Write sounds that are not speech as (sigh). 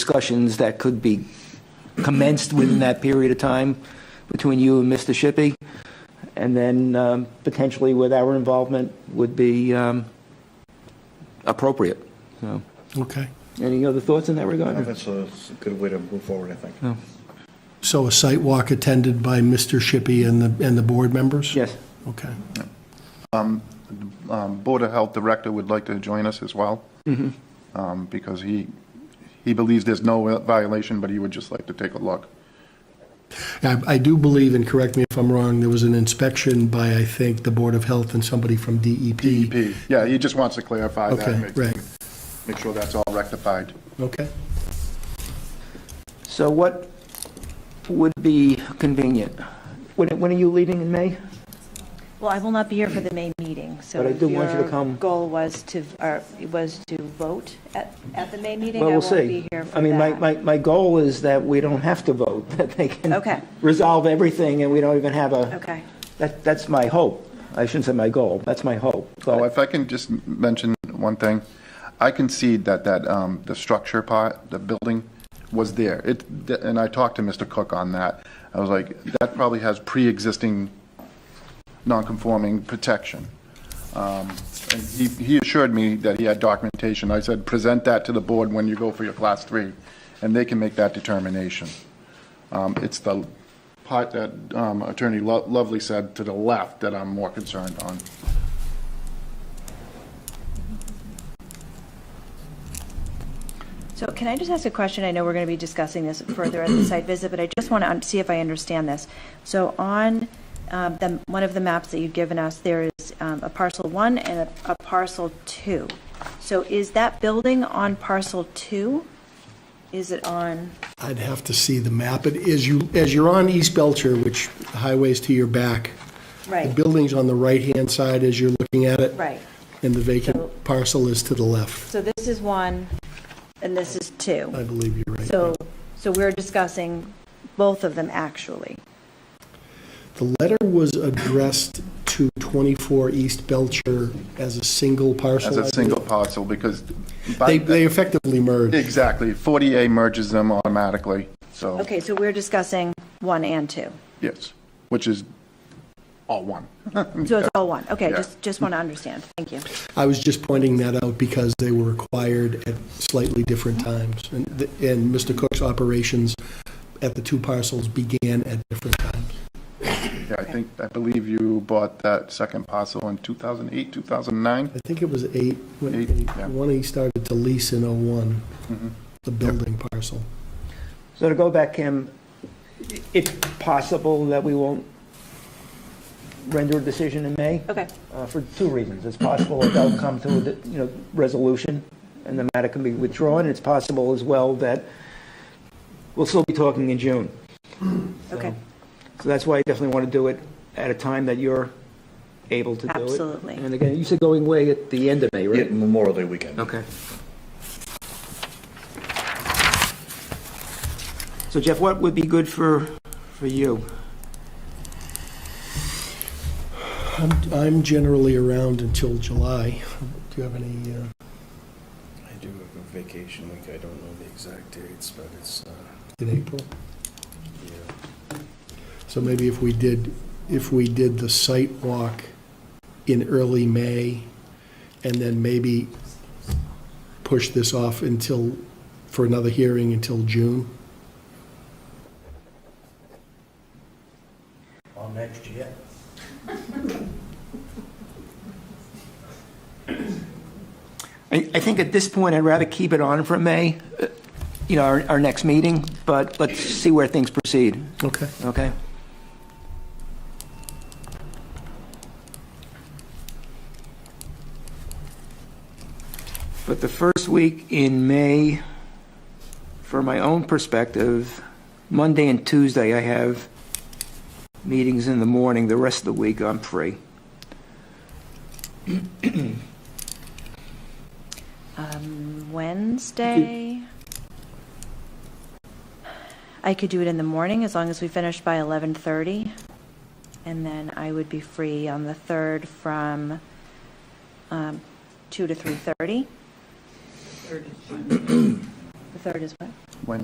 discussions that could be commenced within that period of time between you and Mr. Shippey, and then um, potentially with our involvement would be um, appropriate. So, Okay. Any other thoughts in that Well, regard? That's a that's a good way to move forward, I think. So a site walk attended by Mr. Shippey and the, and the board members? Yes. Okay. um, Board of Health Director would like to join us as well, Mm-hmm. Um, because he, he believes there's no violation, but he would just like to take a look. I, I do believe, and correct me if I'm wrong, there was an inspection by, I think, the Board of Health and somebody from E DEP. He- Yeah, he just wants to clarify that, and Okay, make- right, make sure that's all rectified. okay. So what would be convenient? When when are you leaving in May? Well, I will not be here for the May meeting, so. But I do if want you to your come. Goal was to, or was to vote at, at the May meeting. Well, we'll I won't be see. here for I mean, my, that. my, my goal is that we don't have to vote, (laughs) that they can Okay. resolve everything and we don't even have a. Okay. That, that's my hope. I shouldn't say my goal, that's my hope. Oh, But if I can just mention one thing, I concede that, that, um, the structure part, the building was there. It, and I talked to Mr. Cook on that. I was like, that probably has pre-existing non-conforming protection. Um, and he, he assured me that he had documentation. I said, present that to the board when you go for your class three, and they can make that determination. Um, it's the part that, um, Attorney Lo- Lovely said to the left that I'm more concerned on. So can I just ask a question? I know we're going to be discussing this further at the site visit, but I just want to see if I understand this. So on um, the, one of the maps that you've given us, there is um, a parcel one and a- a parcel two. So is that building on parcel two? Is it on, I'd have to see the map. It is you, as you're on East Belcher, which the highway's to your back, the right, building's on the right-hand side as you're looking at it. right. And the vacant parcel is to the left. So this is one, and this is two. I believe you're right. So, so we're discussing both of them, actually. The letter was addressed to 24 East Belcher as a single parcel. as I a believe. single parcel, because They, by, they effectively merged. exactly, 40A merges them automatically, so, Okay, so we're discussing one and two. yes, which is all one. (laughs) So it's all one. Okay, Mm-hmm. Yeah. just, just want to understand. Thank you. I was just pointing that out because they were acquired at slightly different times. And, the- and Mr. Cook's operations at the two parcels began at different times. Yeah, I think, I believe you bought that second parcel in 2008, 2009? I think it was eight, when- Eight, yeah. Mm-hmm. when he started to lease in '01, the building parcel. So to go back, Kim, i- it's possible that we won't render a decision in May Okay, uh, for two reasons. It's possible that they'll come to, a d- you know, resolution and the matter can be withdrawn. It's possible as well that we'll still be talking in June. okay, So that's why I definitely want to do it at a time that you're able to do it. Absolutely. And again, you said going away at the end of May, Yeah, right? Memorial Day weekend. Okay. So Jeff, what would be good for, for you? I'm, I'm generally around until July. Do you have any, uh, I do have a vacation week, I don't know the exact dates, but it's, uh, in April? yeah. So maybe if we did, if we did the site walk in early May, and then maybe push this off until, for another hearing until June? All next year. I, I think at this point, I'd rather keep it on for May, uh, you know, our, our next meeting, but let's see where things proceed, Okay. okay? But the first week in May, for my own perspective, Monday and Tuesday, I have meetings in the morning. The rest of the week, I'm free. Um, Wednesday. I could do it in the morning as long as we finish by 11:30. And then I would be free on the 3rd from um, 2 to 3:30. The third is what?